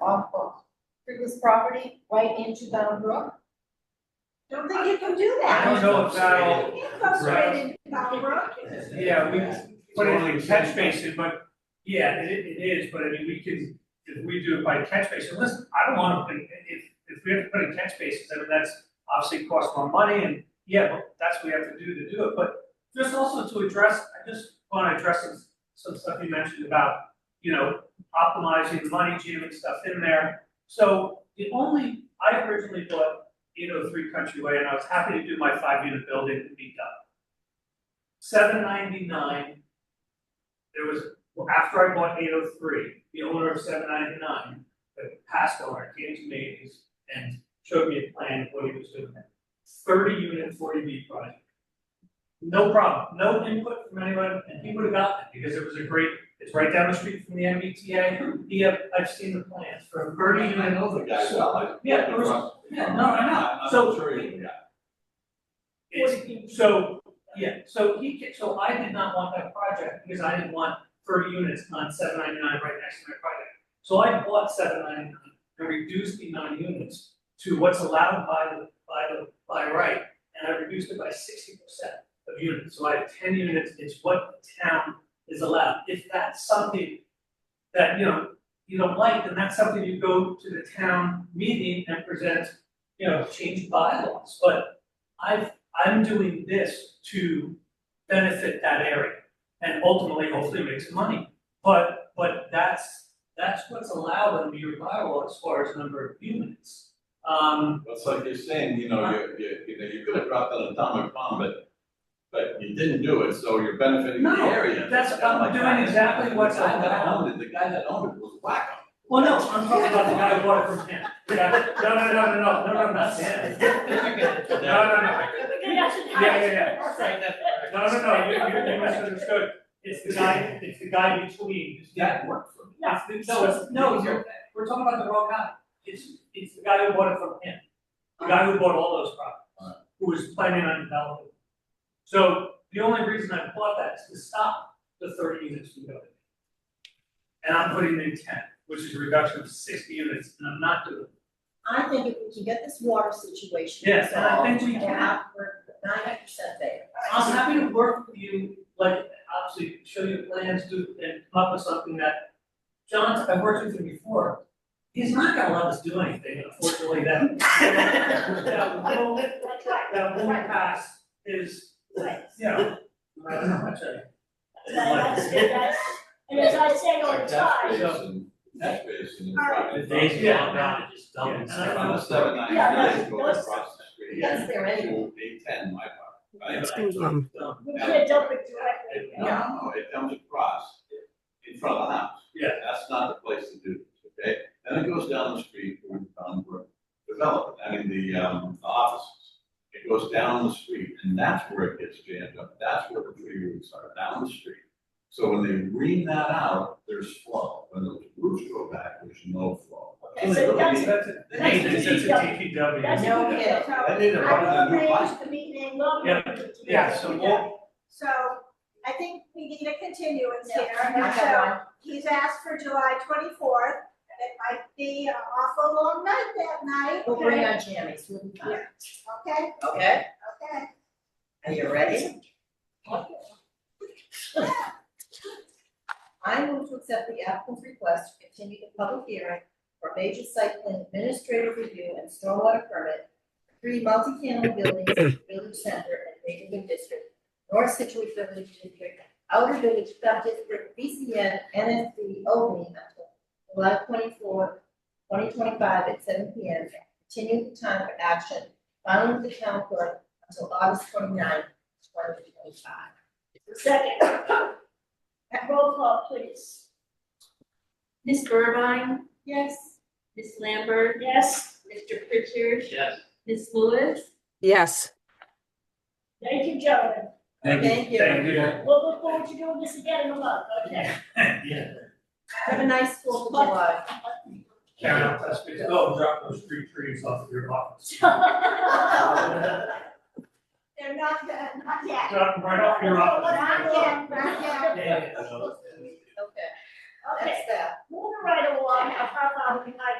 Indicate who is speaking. Speaker 1: off of previous property right into Bound Brook? Don't think you can do
Speaker 2: I
Speaker 1: that.
Speaker 2: don't know if that'll,
Speaker 1: You can't go straight into Bound Brook.
Speaker 2: yeah, we put it in catch basin, but, yeah, it, it is, but I mean, we can, if we do it by catch basin, listen, I don't wanna, put- if, if we have to put in catch basins, I mean, that's obviously costs more money, and, yeah, but that's what we have to do to do it, but just also to address, I just wanna address some, some stuff you mentioned about, you know, optimizing the money, jamming stuff in there. So the only, I originally bought eight oh three Country Way, and I was happy to do my five unit building and be done. Seven ninety-nine, there was, well, after I bought eight oh three, the owner of seven ninety-nine, the past owner, came to me and- and showed me a plan of what he was doing. Thirty unit forty B project. No problem, no input from anyone, and he would have gotten it, because it was a great, it's right down the street from the MBTA, he, had- I've seen the plans for a thirty unit.
Speaker 3: I know the guy well, I.
Speaker 2: Yeah, there was- yeah, no, I know.
Speaker 3: I'm
Speaker 2: So-
Speaker 3: sure you- yeah.
Speaker 1: Forty
Speaker 2: It's, so, yeah, so he, ca- so I did not want that project because I didn't want thirty units on seven ninety-nine right next to my project. So I bought seven ninety-nine and reduced the nine units to what's allowed by the, by the, by right. And I reduced it by sixty percent of units, so I have ten units, it's what the town is allowed. If that's something that, you know, you don't like, then that's something you go to the town meeting and present, you know, change bylaws, but I've I'm doing this to benefit that area and ultimately hopefully make some money. But, but that's, that's what's allowed under your bylaw as far as number of units. Um,
Speaker 3: That's like you're saying, you know, you, you, you know, you could have dropped an atomic bomb, but, but you didn't do it, so you're benefiting the
Speaker 2: No,
Speaker 3: area.
Speaker 2: that's-
Speaker 3: It's kinda
Speaker 2: I'm
Speaker 3: like
Speaker 2: doing
Speaker 3: that.
Speaker 2: exactly what's
Speaker 3: The guy that
Speaker 2: allowed.
Speaker 3: owned it, the guy that owned it was whack
Speaker 2: well, no, I'm talking about the guy who bought it from him. Yeah, No, no, no, no, no, no, no, not Sam. No, no, no. Yeah, yeah, yeah. No, no, no, you, you, you misunderstood. It's the guy, it's the guy between, it's that one.
Speaker 3: for me.
Speaker 2: No, it's- no, you're, we're talking about the wrong guy. It's, it's the guy who bought it from him, the guy who bought all those properties, who was planning on developing. it. So the only reason I bought that is to stop the thirty units from going. And I'm putting in ten, which is a reduction of sixty units, and I'm not doing. it.
Speaker 4: I think if we can get this water situation
Speaker 2: Yes, and I
Speaker 4: resolved,
Speaker 2: think we
Speaker 4: we're
Speaker 2: can.
Speaker 4: not- we're ninety percent there.
Speaker 2: I'm happy to work with you, like, obviously, show you plans, do, and come up with something that, John's, I've worked with him before. He's not gonna let us do anything, unfortunately, that, that will
Speaker 1: That's right.
Speaker 2: that one pass is, you know, I don't know how much
Speaker 5: That's,
Speaker 2: I.
Speaker 5: that's, and as I say all the
Speaker 3: Like catch
Speaker 5: time,
Speaker 3: basin, catch basin.
Speaker 1: All right.
Speaker 3: private
Speaker 6: The days
Speaker 3: property.
Speaker 6: of long gone, just dumb
Speaker 2: Yeah.
Speaker 6: and
Speaker 2: Yeah.
Speaker 3: On the
Speaker 6: stuff.
Speaker 3: seven ninety
Speaker 5: Yeah,
Speaker 3: nine,
Speaker 5: no,
Speaker 3: go
Speaker 5: let's-
Speaker 3: across the street.
Speaker 4: Yes, there is.
Speaker 3: To eight ten, my part.
Speaker 2: Yeah.
Speaker 5: you can't dump it directly.
Speaker 3: No, no, it comes across in front of the house.
Speaker 2: Yeah.
Speaker 3: That's not the place to do this, okay? Then it goes down the street where the town were developed, I mean, the, um, the offices. It goes down the street and that's where it gets jammed up. That's where the tree roots are, down the street. So when they ream that out, there's flow. When those roots go back, there's no flow.
Speaker 5: And so that's-
Speaker 3: They need to-
Speaker 2: Maintenance, it's a DPW.
Speaker 5: That's
Speaker 4: No
Speaker 5: what we
Speaker 4: kidding.
Speaker 5: do.
Speaker 3: They need to run a new
Speaker 5: I
Speaker 3: pipe.
Speaker 5: arranged the meeting in London.
Speaker 2: Yeah, so we'll,
Speaker 1: So I think we need a continuance
Speaker 4: Yeah.
Speaker 1: here, and so he's asked for July twenty-fourth. It might be an awful long night that night,
Speaker 4: We'll bring our jammies, we'll be fine.
Speaker 1: okay,
Speaker 4: Okay,
Speaker 1: okay.
Speaker 4: are you ready? I move to accept the applicant's request to continue the public hearing for major site plan administrative review and stormwater permit. Three multifamily buildings, in village center and neighborhood district, North Situate Village District, Outer Village Subdistrict, BCN, NSD, only until July twenty-fourth, twenty twenty-five at seven P M. Continue the time for action, filing with the town clerk until August twenty-ninth, twenty twenty-five.
Speaker 5: Second. Roll call, please.
Speaker 7: Ms. Burbine,
Speaker 4: Yes.
Speaker 7: Ms. Lambert,
Speaker 5: Yes,
Speaker 7: Mr. Pritchard,
Speaker 6: Yes.
Speaker 7: Ms. Lewis,
Speaker 8: Yes,
Speaker 5: thank you, gentlemen.
Speaker 4: Thank you.
Speaker 2: thank you.
Speaker 5: We'll look forward to doing this again in a month, okay?
Speaker 2: Yeah.
Speaker 4: Have a nice Fourth of July.
Speaker 2: Karen, I'll touch base. Go Oh, drop those three trees off of your office.
Speaker 1: They're not, uh, not yet.
Speaker 2: Drop them right off your office.
Speaker 1: Not yet, not yet.
Speaker 2: Yeah, yeah, yeah.
Speaker 4: Okay,
Speaker 5: Okay,
Speaker 4: that's that.
Speaker 5: moving
Speaker 1: right along, I'll pop out behind